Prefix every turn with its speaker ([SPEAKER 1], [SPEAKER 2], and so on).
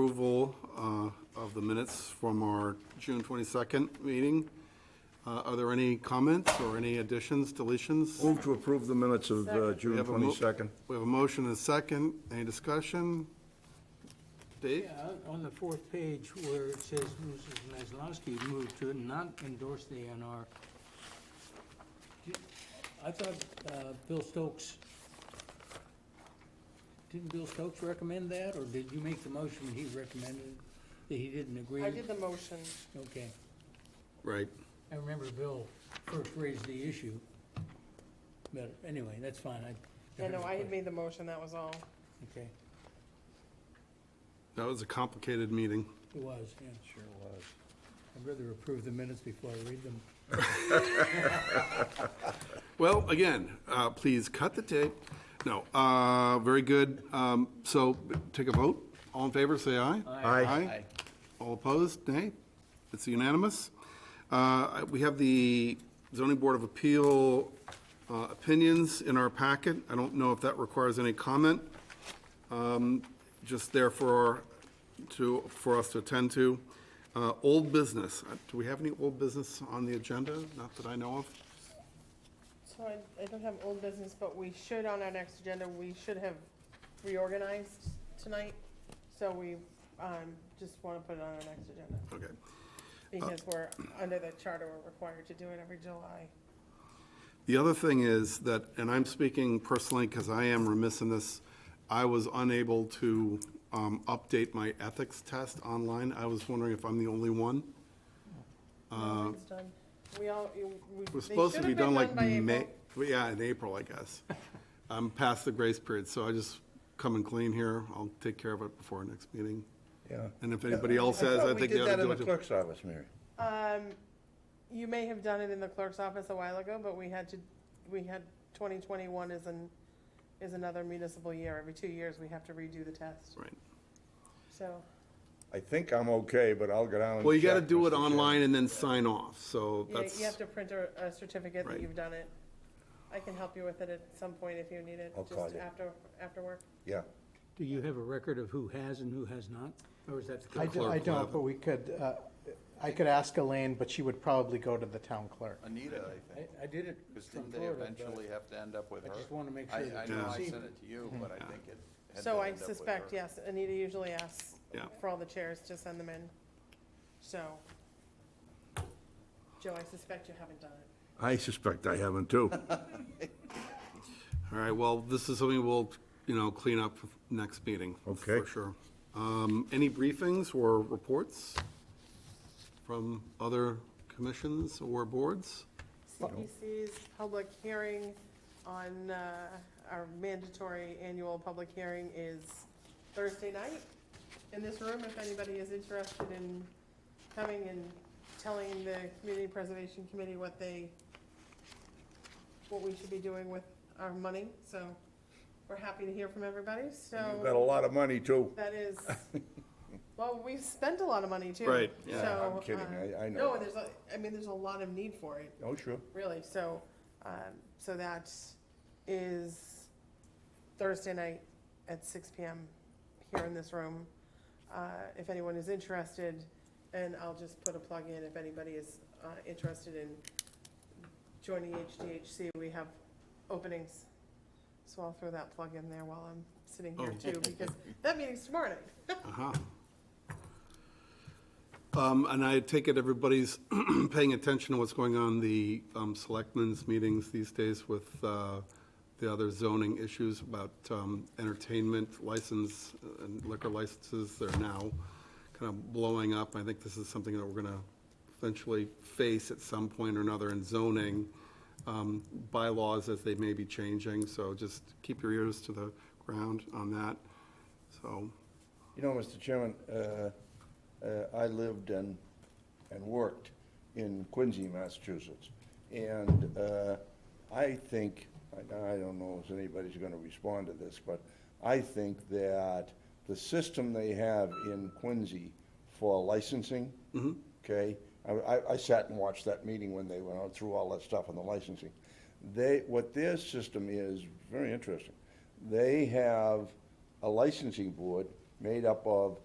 [SPEAKER 1] Approval uh, of the minutes from our June 22nd meeting. Uh, Are there any comments or any additions, deletions?
[SPEAKER 2] Move to approve the minutes of
[SPEAKER 1] We
[SPEAKER 2] uh, June
[SPEAKER 1] have a mo-
[SPEAKER 2] 22nd.
[SPEAKER 1] We have a motion and a second. Any discussion? Dave?
[SPEAKER 3] Yeah, on the fourth page where it says Mrs. Maslowski moved to not endorse the NR. Did- I thought uh, Bill Stokes, didn't Bill Stokes recommend that, or did you make the motion he recommended that he didn't agree?
[SPEAKER 4] I did the motion.
[SPEAKER 3] Okay,
[SPEAKER 1] Right.
[SPEAKER 3] I remember Bill first raised the issue, but anyway, that's fine, I.
[SPEAKER 4] Yeah, no, I had made the motion, that was all.
[SPEAKER 3] Okay,
[SPEAKER 1] That was a complicated meeting.
[SPEAKER 3] it was, yeah. Sure was. I'd rather approve the minutes before I read them.
[SPEAKER 1] Well, again, uh, please cut the tape. No, uh, very good. Um, So take a vote. All in favor, say aye.
[SPEAKER 2] Aye.
[SPEAKER 1] Aye. All opposed, nay? It's unanimous. Uh, We have the zoning board of appeal uh, opinions in our packet. I don't know if that requires any comment, Um, just there for, to, for us to attend to. Uh, Old business, Uh, do we have any old business on the agenda? Not that I know of.
[SPEAKER 4] So I, I don't have old business, but we should, on our next agenda, we should have reorganized tonight. So we, um, just wanna put it on our next agenda,
[SPEAKER 1] Okay.
[SPEAKER 4] because
[SPEAKER 1] Uh,
[SPEAKER 4] we're, under the charter, we're required to do it every July.
[SPEAKER 1] The other thing is that, and I'm speaking personally because I am remiss in this, I was unable to um, update my ethics test online. I was wondering if I'm the only one.
[SPEAKER 4] It's done. We all, you- we,
[SPEAKER 1] It was
[SPEAKER 4] they
[SPEAKER 1] uh, supposed
[SPEAKER 4] should
[SPEAKER 1] to
[SPEAKER 4] have
[SPEAKER 1] be done
[SPEAKER 4] been
[SPEAKER 1] like
[SPEAKER 4] done by
[SPEAKER 1] May.
[SPEAKER 4] April.
[SPEAKER 1] well, Yeah, in April, I guess. I'm past the grace period, so I just come and clean here. I'll take care of it before our next meeting.
[SPEAKER 2] Yeah.
[SPEAKER 1] And if anybody else says, I think they ought to do
[SPEAKER 2] We did that
[SPEAKER 1] it.
[SPEAKER 2] in the
[SPEAKER 1] too.
[SPEAKER 2] clerk's office, Mary.
[SPEAKER 4] Um, you may have done it in the clerk's office a while ago, but we had to, we had, twenty twenty-one is an, is another municipal year. Every two years, we have to redo the test,
[SPEAKER 1] Right.
[SPEAKER 4] so.
[SPEAKER 2] I think I'm okay, but I'll go down and
[SPEAKER 1] Well, you got to
[SPEAKER 2] check,
[SPEAKER 1] do it
[SPEAKER 2] Mr. Chair.
[SPEAKER 1] online and then sign off, so
[SPEAKER 4] You,
[SPEAKER 1] that's,
[SPEAKER 4] you have to print a, a certificate
[SPEAKER 1] Right.
[SPEAKER 4] that you've done it. I can help you with it at some point if you need it,
[SPEAKER 2] I'll call
[SPEAKER 4] just
[SPEAKER 2] you.
[SPEAKER 4] after, after work.
[SPEAKER 2] Yeah.
[SPEAKER 3] Do you have a record of who has and who has not? Or is that the
[SPEAKER 5] I
[SPEAKER 3] clerk?
[SPEAKER 5] do- I
[SPEAKER 1] clerk will have
[SPEAKER 5] don't, but we could, uh, I could ask Elaine, but she would probably go to the town clerk.
[SPEAKER 6] Anita, I think,
[SPEAKER 3] I, I did it
[SPEAKER 6] because
[SPEAKER 3] from
[SPEAKER 6] didn't they
[SPEAKER 3] Florida,
[SPEAKER 6] eventually have to end up with
[SPEAKER 3] I
[SPEAKER 6] her?
[SPEAKER 3] just wanna make
[SPEAKER 6] I-
[SPEAKER 3] sure
[SPEAKER 6] I
[SPEAKER 3] that
[SPEAKER 6] know
[SPEAKER 3] you
[SPEAKER 6] I
[SPEAKER 3] see
[SPEAKER 6] sent it to you, but I think it had to
[SPEAKER 4] So I
[SPEAKER 6] end up with
[SPEAKER 4] suspect,
[SPEAKER 6] her.
[SPEAKER 4] yes, Anita usually asks
[SPEAKER 1] Yeah.
[SPEAKER 4] for all the chairs to send them in, so. Joe, I suspect you haven't done it.
[SPEAKER 2] I suspect I haven't, too.
[SPEAKER 1] all right, well, this is something we'll, you know, clean up next meeting.
[SPEAKER 2] Okay.
[SPEAKER 1] For sure. Um, Any briefings or reports from other commissions or boards?
[SPEAKER 4] CPC's public hearing on, uh, our mandatory annual public hearing is Thursday night in this room, if anybody is interested in coming and telling the Community Preservation Committee what they, what we should be doing with our money, so we're happy to hear from everybody,
[SPEAKER 2] You've got a
[SPEAKER 4] so
[SPEAKER 2] lot of money, too.
[SPEAKER 4] that is, well, we've spent a lot of money too.
[SPEAKER 1] Right,
[SPEAKER 2] yeah.
[SPEAKER 4] so,
[SPEAKER 2] I'm kidding,
[SPEAKER 4] uh,
[SPEAKER 2] I- I know.
[SPEAKER 4] No, and there's, a- I mean, there's a lot of need for it
[SPEAKER 2] Oh, sure.
[SPEAKER 4] really. So, um, so that is Thursday night at six PM here in this room. Uh, if anyone is interested, and I'll just put a plug in, if anybody is, uh, interested in joining HDHC, we have openings. So I'll throw that plug in there while I'm sitting here
[SPEAKER 1] Oh.
[SPEAKER 4] too, because that meeting's tomorrow night.
[SPEAKER 1] Uh-huh. Um, And I take it everybody's paying attention to what's going on in the um, selectmen's meetings these days with uh, the other zoning issues about um, entertainment license uh, and liquor licenses. They're now kind of blowing up. I think this is something that we're going to eventually face at some point or another in zoning um, bylaws as they may be changing. So just keep your ears to the ground on that. So,
[SPEAKER 2] You know, Mr. Chairman, uh, uh, I lived and, and worked in Quincy, Massachusetts. And uh, I think, I I don't know if anybody's going to respond to this, but I think that the system they have in Quincy for licensing, okay? I, I- I sat and watched that meeting when they went out through all that stuff on the licensing. They, what their system is, very interesting. They have a licensing board made up of